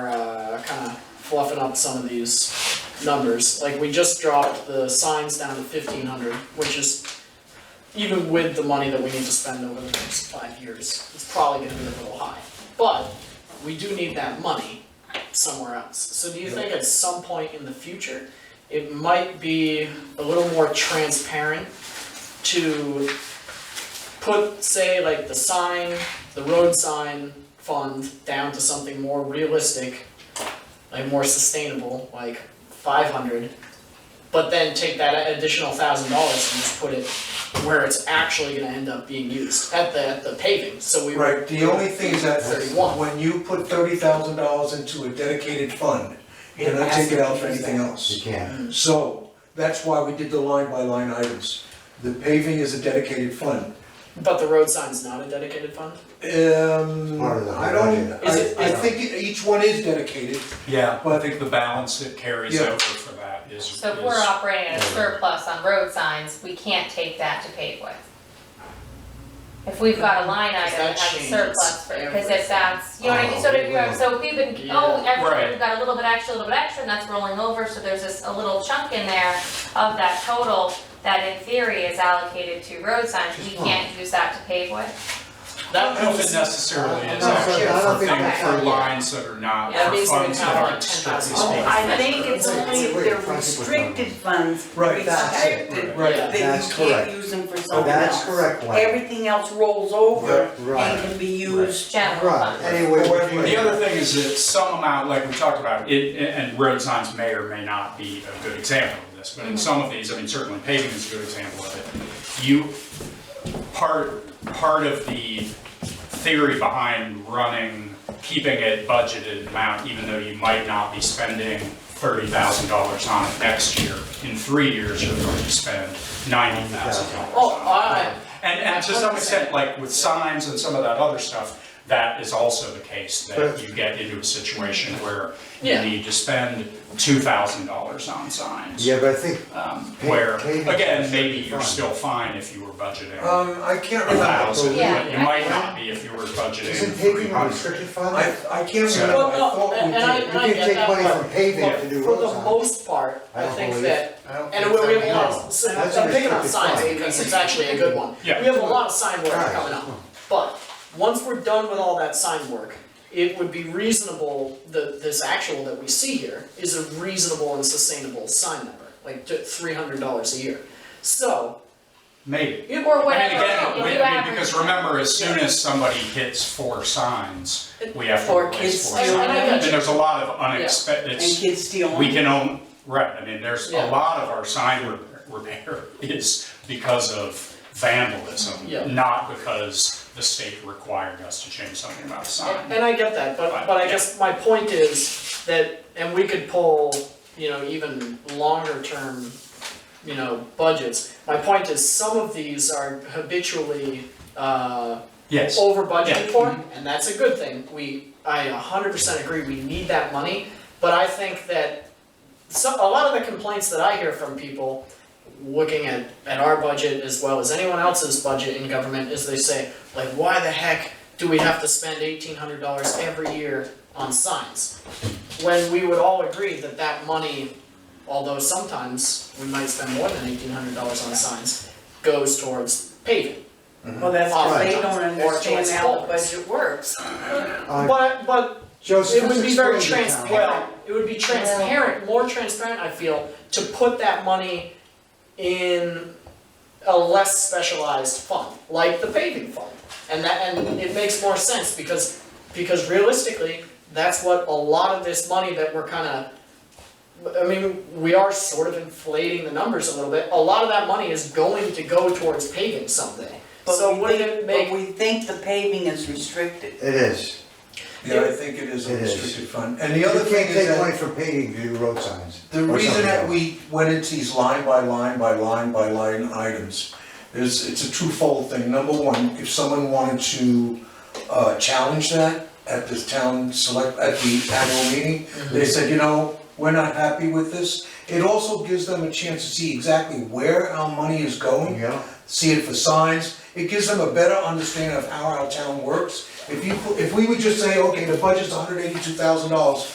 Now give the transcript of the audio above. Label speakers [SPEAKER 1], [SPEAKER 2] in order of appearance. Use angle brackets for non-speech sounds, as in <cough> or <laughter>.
[SPEAKER 1] uh, kinda fluffing up some of these numbers. Like, we just dropped the signs down to fifteen hundred, which is even with the money that we need to spend over the next five years, it's probably gonna be a little high. But we do need that money somewhere else. So do you think at some point in the future, it might be a little more transparent to put, say, like the sign, the road sign fund down to something more realistic, like more sustainable, like five hundred, but then take that additional thousand dollars and just put it where it's actually gonna end up being used, at the, at the paving, so we.
[SPEAKER 2] Right, the only thing is that
[SPEAKER 1] 31.
[SPEAKER 2] when you put thirty thousand dollars into a dedicated fund, you're not taking out for anything
[SPEAKER 3] You
[SPEAKER 2] else.
[SPEAKER 3] can't.
[SPEAKER 2] So, that's why we did the line by line items. The paving is a dedicated fund.
[SPEAKER 1] But the road sign's not a dedicated fund?
[SPEAKER 2] Um,
[SPEAKER 3] Part of the
[SPEAKER 2] I don't,
[SPEAKER 3] budget.
[SPEAKER 1] Is it-
[SPEAKER 2] I, I think each one is dedicated,
[SPEAKER 4] Yeah, I
[SPEAKER 2] But-
[SPEAKER 4] think the balance that carries
[SPEAKER 2] Yeah.
[SPEAKER 4] over for that is, is,
[SPEAKER 5] So if we're operating at a surplus on road signs, we can't take that to pave with. If we've got a line
[SPEAKER 1] Because
[SPEAKER 5] item that
[SPEAKER 1] that
[SPEAKER 5] has a surplus, for-
[SPEAKER 1] changes
[SPEAKER 5] because if that's, you know what I mean, so if you're, so if we've been, oh,
[SPEAKER 1] Yeah.
[SPEAKER 5] every,
[SPEAKER 4] Right.
[SPEAKER 5] we've got a little bit extra, a little bit extra, and that's rolling over, so there's this, a little chunk in there of that total that in theory is allocated to road signs, we can't use that to pave with.
[SPEAKER 4] I don't know
[SPEAKER 1] That
[SPEAKER 4] if it
[SPEAKER 1] means,
[SPEAKER 4] necessarily is
[SPEAKER 3] I'm not
[SPEAKER 4] actually
[SPEAKER 3] sure. I don't
[SPEAKER 4] for
[SPEAKER 3] think
[SPEAKER 4] things,
[SPEAKER 5] that's-
[SPEAKER 4] for lines that are not,
[SPEAKER 1] Yeah, it
[SPEAKER 4] for
[SPEAKER 1] means we
[SPEAKER 4] funds
[SPEAKER 1] have
[SPEAKER 4] that
[SPEAKER 1] like
[SPEAKER 4] aren't strictly
[SPEAKER 1] 10,000.
[SPEAKER 3] Oh,
[SPEAKER 4] speaking.
[SPEAKER 6] I think it's
[SPEAKER 3] Wait,
[SPEAKER 6] only if
[SPEAKER 3] wait,
[SPEAKER 6] they're
[SPEAKER 3] Frank was
[SPEAKER 6] restricted funds,
[SPEAKER 2] Right,
[SPEAKER 3] that's it,
[SPEAKER 6] restricted,
[SPEAKER 2] right.
[SPEAKER 1] Yeah.
[SPEAKER 6] then you
[SPEAKER 3] That's correct.
[SPEAKER 6] can't use them for
[SPEAKER 3] Oh,
[SPEAKER 6] something
[SPEAKER 3] that's
[SPEAKER 6] else.
[SPEAKER 3] correct, Wayne.
[SPEAKER 6] Everything else rolls over
[SPEAKER 3] Right.
[SPEAKER 6] and can be used.
[SPEAKER 5] General
[SPEAKER 3] Right,
[SPEAKER 5] fund.
[SPEAKER 3] anyway.
[SPEAKER 2] Or if you-
[SPEAKER 4] The other thing is that some amount, like we talked about, it, and road signs may or may not be a good example of this, but in some of these, I mean, certainly paving is a good example of it. You, part, part of the theory behind running, keeping it budgeted amount, even though you might not be spending thirty thousand dollars on it next year, in three years, you're going to spend ninety thousand dollars
[SPEAKER 1] oh, I,
[SPEAKER 4] and, and to some extent, like with signs and some of that other stuff, that is also the case, that you get into a situation where you
[SPEAKER 1] Yeah.
[SPEAKER 4] need to spend two thousand dollars on signs.
[SPEAKER 3] Yeah, but I think,
[SPEAKER 4] Um,
[SPEAKER 3] Pa-
[SPEAKER 4] where,
[SPEAKER 3] paving
[SPEAKER 4] again,
[SPEAKER 3] is
[SPEAKER 4] maybe
[SPEAKER 3] pretty
[SPEAKER 4] you're
[SPEAKER 3] fine.
[SPEAKER 4] still fine if you were budgeting
[SPEAKER 2] um, I can't
[SPEAKER 4] a thousand,
[SPEAKER 2] remember.
[SPEAKER 5] Yeah.
[SPEAKER 4] but you might not be if you were budgeting
[SPEAKER 3] isn't
[SPEAKER 4] three
[SPEAKER 3] paving a
[SPEAKER 4] hundred.
[SPEAKER 3] restricted fund?
[SPEAKER 2] I, I can't
[SPEAKER 4] So-
[SPEAKER 2] remember, I
[SPEAKER 1] Well, no,
[SPEAKER 2] thought we
[SPEAKER 1] and- and I-
[SPEAKER 2] did.
[SPEAKER 3] You
[SPEAKER 1] and
[SPEAKER 3] can take
[SPEAKER 1] get
[SPEAKER 3] money
[SPEAKER 1] that,
[SPEAKER 3] from paving to do
[SPEAKER 1] for
[SPEAKER 3] roads
[SPEAKER 1] the
[SPEAKER 3] on.
[SPEAKER 1] most part,
[SPEAKER 3] I
[SPEAKER 1] I
[SPEAKER 3] don't
[SPEAKER 1] think
[SPEAKER 3] believe-
[SPEAKER 1] that,
[SPEAKER 3] I don't
[SPEAKER 1] and
[SPEAKER 3] think
[SPEAKER 1] we we have
[SPEAKER 3] so,
[SPEAKER 1] a lot,
[SPEAKER 3] no.
[SPEAKER 1] of s-
[SPEAKER 3] That's
[SPEAKER 1] I'm picking on
[SPEAKER 3] restricted
[SPEAKER 1] signs
[SPEAKER 3] fund.
[SPEAKER 1] because it's actually a good one.
[SPEAKER 4] Yeah.
[SPEAKER 1] We have a lot of sign work
[SPEAKER 3] Alright.
[SPEAKER 1] coming up, but once we're done with all that sign work, it would be reasonable, the, this actual that we see here is a reasonable and sustainable sign number, like three hundred dollars a year. So,
[SPEAKER 4] Maybe.
[SPEAKER 1] it,
[SPEAKER 5] Or
[SPEAKER 4] I mean,
[SPEAKER 5] whatever,
[SPEAKER 4] again,
[SPEAKER 5] if
[SPEAKER 4] we-
[SPEAKER 5] you
[SPEAKER 4] I mean,
[SPEAKER 5] average-
[SPEAKER 4] because remember, as soon as somebody hits four signs, we have to
[SPEAKER 6] Or
[SPEAKER 4] replace
[SPEAKER 6] kids
[SPEAKER 4] four
[SPEAKER 1] steal
[SPEAKER 4] signs.
[SPEAKER 1] them.
[SPEAKER 4] And there's a lot of unexpected,
[SPEAKER 6] And kids steal them.
[SPEAKER 4] We can own, right, I mean, there's
[SPEAKER 1] Yeah.
[SPEAKER 4] a lot of our sign re- repair <laughs> is because of
[SPEAKER 1] Yeah.
[SPEAKER 4] vandalism, not because the state required us to change something about the sign.
[SPEAKER 1] And I get that, but,
[SPEAKER 4] Right.
[SPEAKER 1] but I guess my point is that, and we could pull, you know, even longer term, you know, budgets. My point is, some of these are habitually, uh,
[SPEAKER 4] Yes,
[SPEAKER 1] over budgeted
[SPEAKER 4] Yeah.
[SPEAKER 1] for, and that's a good thing. We, I a hundred percent agree, we need that money, but I think that some, a lot of the complaints that I hear from people, looking at, at our budget as well as anyone else's budget in government, is they say, like, why the heck do we have to spend eighteen hundred dollars every year on signs? When we would all agree that that money, although sometimes we might spend more than eighteen hundred dollars on signs, goes towards paving.
[SPEAKER 6] Well, that's because they
[SPEAKER 1] Oftentimes,
[SPEAKER 6] don't
[SPEAKER 1] or
[SPEAKER 6] understand
[SPEAKER 1] it's
[SPEAKER 6] how the
[SPEAKER 1] always.
[SPEAKER 6] budget works.
[SPEAKER 3] Uh,
[SPEAKER 1] But but
[SPEAKER 3] Joseph,
[SPEAKER 1] it would be very
[SPEAKER 3] explain the town.
[SPEAKER 1] transparent, it would be transparent, more transparent, I feel, to put that money in a less specialized fund, like the paving fund. And that, and it makes more sense because, because realistically, that's what a lot of this money that we're kinda, I mean, we are sort of inflating the numbers a little bit, a lot of that money is going to go towards paving someday.
[SPEAKER 6] But
[SPEAKER 1] So
[SPEAKER 6] we
[SPEAKER 1] wouldn't
[SPEAKER 6] think-
[SPEAKER 1] it make
[SPEAKER 6] But we think the paving is restricted.
[SPEAKER 3] It is.
[SPEAKER 2] Yeah, I think it is a
[SPEAKER 3] It is.
[SPEAKER 2] restricted fund. And the
[SPEAKER 3] You
[SPEAKER 2] other thing
[SPEAKER 3] can't
[SPEAKER 2] is
[SPEAKER 3] take money
[SPEAKER 2] that,
[SPEAKER 3] from paving to do road signs.
[SPEAKER 2] the
[SPEAKER 3] or
[SPEAKER 2] reason
[SPEAKER 3] something
[SPEAKER 2] that
[SPEAKER 3] else.
[SPEAKER 2] we went into these line by line by line by line items is, it's a twofold thing. Number one, if someone wanted to, uh, challenge that at this town select, at the annual meeting, they said, you know, we're not happy with this. It also gives them a chance to see exactly where our money is going.
[SPEAKER 3] Yeah,
[SPEAKER 2] see it for signs. It gives them a better understanding of how our town works. If you, if we would just say, okay, the budget's hundred eighty-two thousand dollars,